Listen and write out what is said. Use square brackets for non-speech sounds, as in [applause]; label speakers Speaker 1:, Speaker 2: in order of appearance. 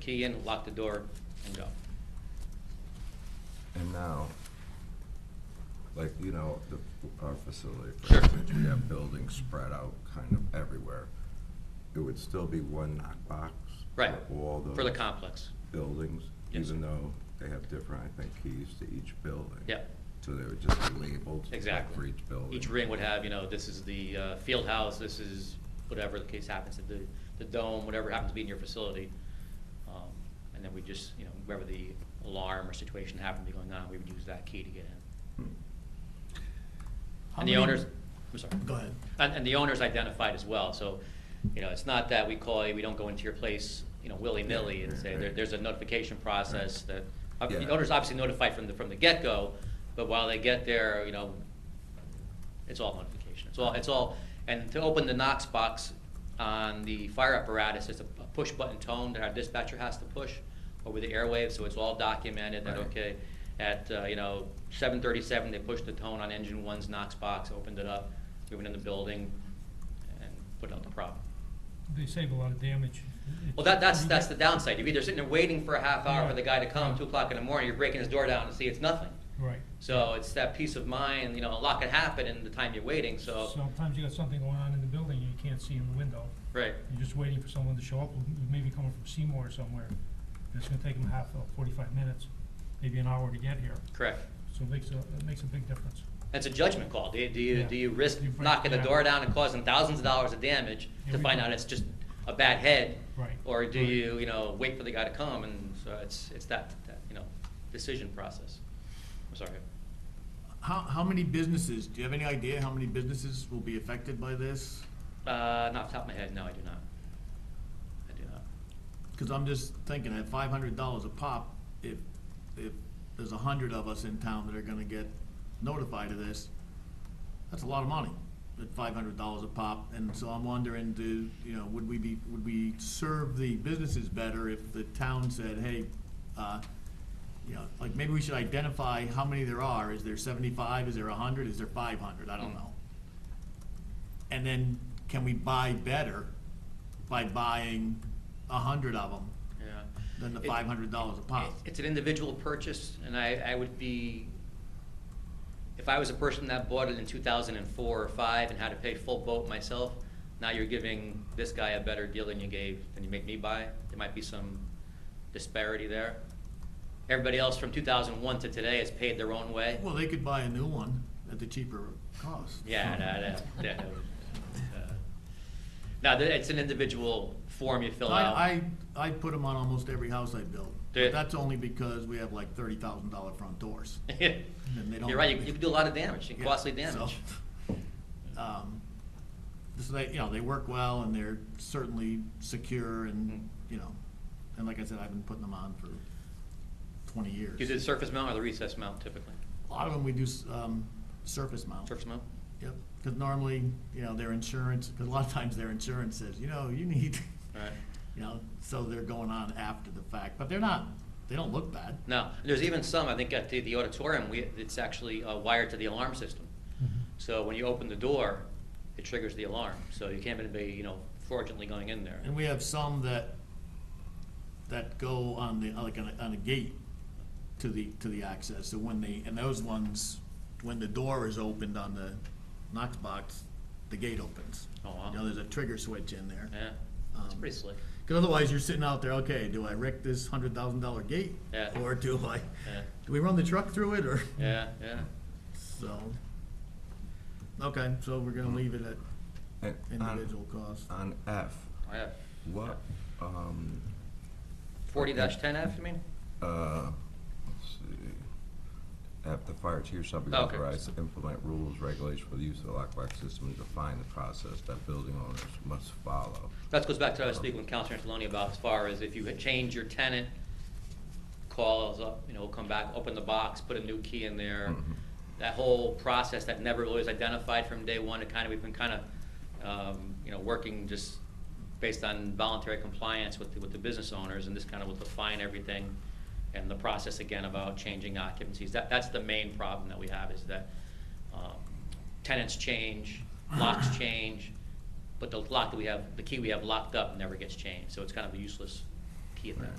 Speaker 1: key in, lock the door, and go.
Speaker 2: And now, like, you know, the, our facility, for instance, we have buildings spread out kind of everywhere. It would still be one knockbox.
Speaker 1: Right,
Speaker 2: For all
Speaker 1: for the
Speaker 2: those
Speaker 1: complex.
Speaker 2: buildings,
Speaker 1: Yes.
Speaker 2: even though they have different, I think, keys to each building.
Speaker 1: Yep.
Speaker 2: So they would just be labeled.
Speaker 1: Exactly.
Speaker 2: For each building.
Speaker 1: Each ring would have, you know, this is the uh, field house, this is whatever the case happens, to the, the dome, whatever happens to be in your facility. Um, And then we just, you know, wherever the alarm or situation happened to be going on, we would use that key to get in.
Speaker 2: Hmm.
Speaker 3: How
Speaker 1: And the
Speaker 3: many-
Speaker 1: owners, I'm sorry.
Speaker 3: Go ahead.
Speaker 1: And, and the owner's identified as well, so, you know, it's not that we call you, we don't go into your place, you know, willy-nilly and say, there, there's a notification process that, uh, the
Speaker 2: Yeah.
Speaker 1: owner's obviously notified from the, from the get-go, but while they get there, you know, it's all notification, it's all, it's all, and to open the Knox box on the fire apparatus, it's a push-button tone that our dispatcher has to push over the airwaves, so it's all documented that,
Speaker 2: Right.
Speaker 1: okay, at, uh, you know, seven thirty-seven, they pushed the tone on engine one's Knox box, opened it up, we went in the building, and put out the problem.
Speaker 4: They save a lot of damage.
Speaker 1: Well, that, that's, that's the downside, you're either sitting there waiting for a half hour for the guy to come, two o'clock in the morning, you're breaking his door down and see it's nothing.
Speaker 4: Right.
Speaker 1: So it's that peace of mind, you know, a lot can happen in the time you're waiting, so,
Speaker 4: Sometimes you got something going on in the building and you can't see in the window.
Speaker 1: right,
Speaker 4: You're just waiting for someone to show up, who maybe coming from Seymour or somewhere. And It's gonna take them half, uh, forty-five minutes, maybe an hour to get here.
Speaker 1: correct.
Speaker 4: So it makes a, it makes a big difference.
Speaker 1: It's a judgment call. Do you, do you,
Speaker 4: Yeah.
Speaker 1: do you risk
Speaker 4: You break-
Speaker 1: knocking the
Speaker 4: yeah.
Speaker 1: door down and causing thousands of dollars of damage
Speaker 4: Yeah,
Speaker 1: to
Speaker 4: we
Speaker 1: find
Speaker 4: do.
Speaker 1: out it's just a bad head?
Speaker 4: Right.
Speaker 1: Or do
Speaker 4: Right.
Speaker 1: you, you know, wait for the guy to come and so it's, it's that, that, you know, decision process. I'm sorry.
Speaker 3: How, how many businesses, do you have any idea how many businesses will be affected by this?
Speaker 1: Uh, not off the top of my head, no, I do not. I do not.
Speaker 3: Because I'm just thinking at five hundred dollars a pop, if, if there's a hundred of us in town that are gonna get notified of this, that's a lot of money, at five hundred dollars a pop. And so I'm wondering, do, you know, would we be, would we serve the businesses better if the town said, hey, uh, you know, like maybe we should identify how many there are. Is there seventy-five? Is there hundred? Is there five hundred? I don't
Speaker 1: Hmm.
Speaker 3: know. And then can we buy better by buying a hundred of them
Speaker 1: Yeah.
Speaker 3: than the
Speaker 1: It-
Speaker 3: five hundred dollars a pop?
Speaker 1: It- It's an individual purchase, and I, I would be, if I was a person that bought it in two thousand and four or five and had to pay full boat myself, now you're giving this guy a better deal than you gave, than you made me buy. There might be some disparity there. Everybody else from two thousand and one to today has paid their own way.
Speaker 3: Well, they could buy a new one at the cheaper cost.
Speaker 1: [laughs] Yeah, no, no, no. Uh, No, th- it's an individual form you fill out.
Speaker 3: I, I, I put them on almost every house I build.
Speaker 1: Do you?
Speaker 3: But that's only because we have like thirty thousand dollar front
Speaker 1: [laughs]
Speaker 3: doors. And they
Speaker 1: [laughs]
Speaker 3: don't-
Speaker 1: You're right, you, you can do a lot of damage, and
Speaker 3: Yeah,
Speaker 1: costly
Speaker 3: so,
Speaker 1: damage.
Speaker 3: um, So they, you know, they work well and they're certainly secure
Speaker 1: Mm-hmm.
Speaker 3: and, you know, and like I said, I've been putting them on for twenty years.
Speaker 1: Do you do the surface mount or the recess mount typically?
Speaker 3: A lot of them we do, s- um, surface mount.
Speaker 1: Surface mount?
Speaker 3: Yep, because normally, you know, their insurance, because a lot of times their insurance says, you know, you need,
Speaker 1: Right.
Speaker 3: [laughs] you know, so they're going on after the fact, but they're not, they don't look bad.
Speaker 1: No, and there's even some, I think at the, the auditorium, we, it's actually uh, wired to the alarm system. So when you open the door, it triggers the alarm, so you can't be, you know, fraudulently going in there.
Speaker 3: And we have some that, that go on the, like on a, on a gate to the, to the access, so when they, and those ones, when the door is opened on the Knox box, the gate opens.
Speaker 1: Oh, wow.
Speaker 3: You know, there's a trigger switch in there.
Speaker 1: Yeah, it's
Speaker 3: Um,
Speaker 1: pretty slick.
Speaker 3: Because otherwise, you're sitting out there, okay, do I wreck this hundred thousand dollar gate?
Speaker 1: Yeah.
Speaker 3: Or do I,
Speaker 1: Yeah.
Speaker 3: do we run the truck through it, or,
Speaker 1: Yeah, yeah.
Speaker 3: so. Okay, so we're gonna leave it at
Speaker 2: And on-
Speaker 3: individual cost.
Speaker 2: On F,
Speaker 1: I have
Speaker 2: what, um,
Speaker 1: forty dash ten F, you mean?
Speaker 2: Uh, let's see. Have the fire chief shall be
Speaker 1: Okay.
Speaker 2: authorized to implement rules, regulations for the use of the lockbox system and define the process that building owners must follow.
Speaker 1: That goes back to what I was speaking with Counselor Angeloni about as far as if you had changed your tenant, call us up, you know, come back, open the box, put a new key in there.
Speaker 2: Mhm.
Speaker 1: That whole process that never really was identified from day one, it kind of, we've been kind of, um, you know, working just based on voluntary compliance with, the- with the business owners, and this kind of will define everything. And the process again about changing occupancies, that, that's the main problem that we have is that, um, tenants change, locks change, but the lock that we have, the key we have locked up never gets changed, so it's kind of a useless key at that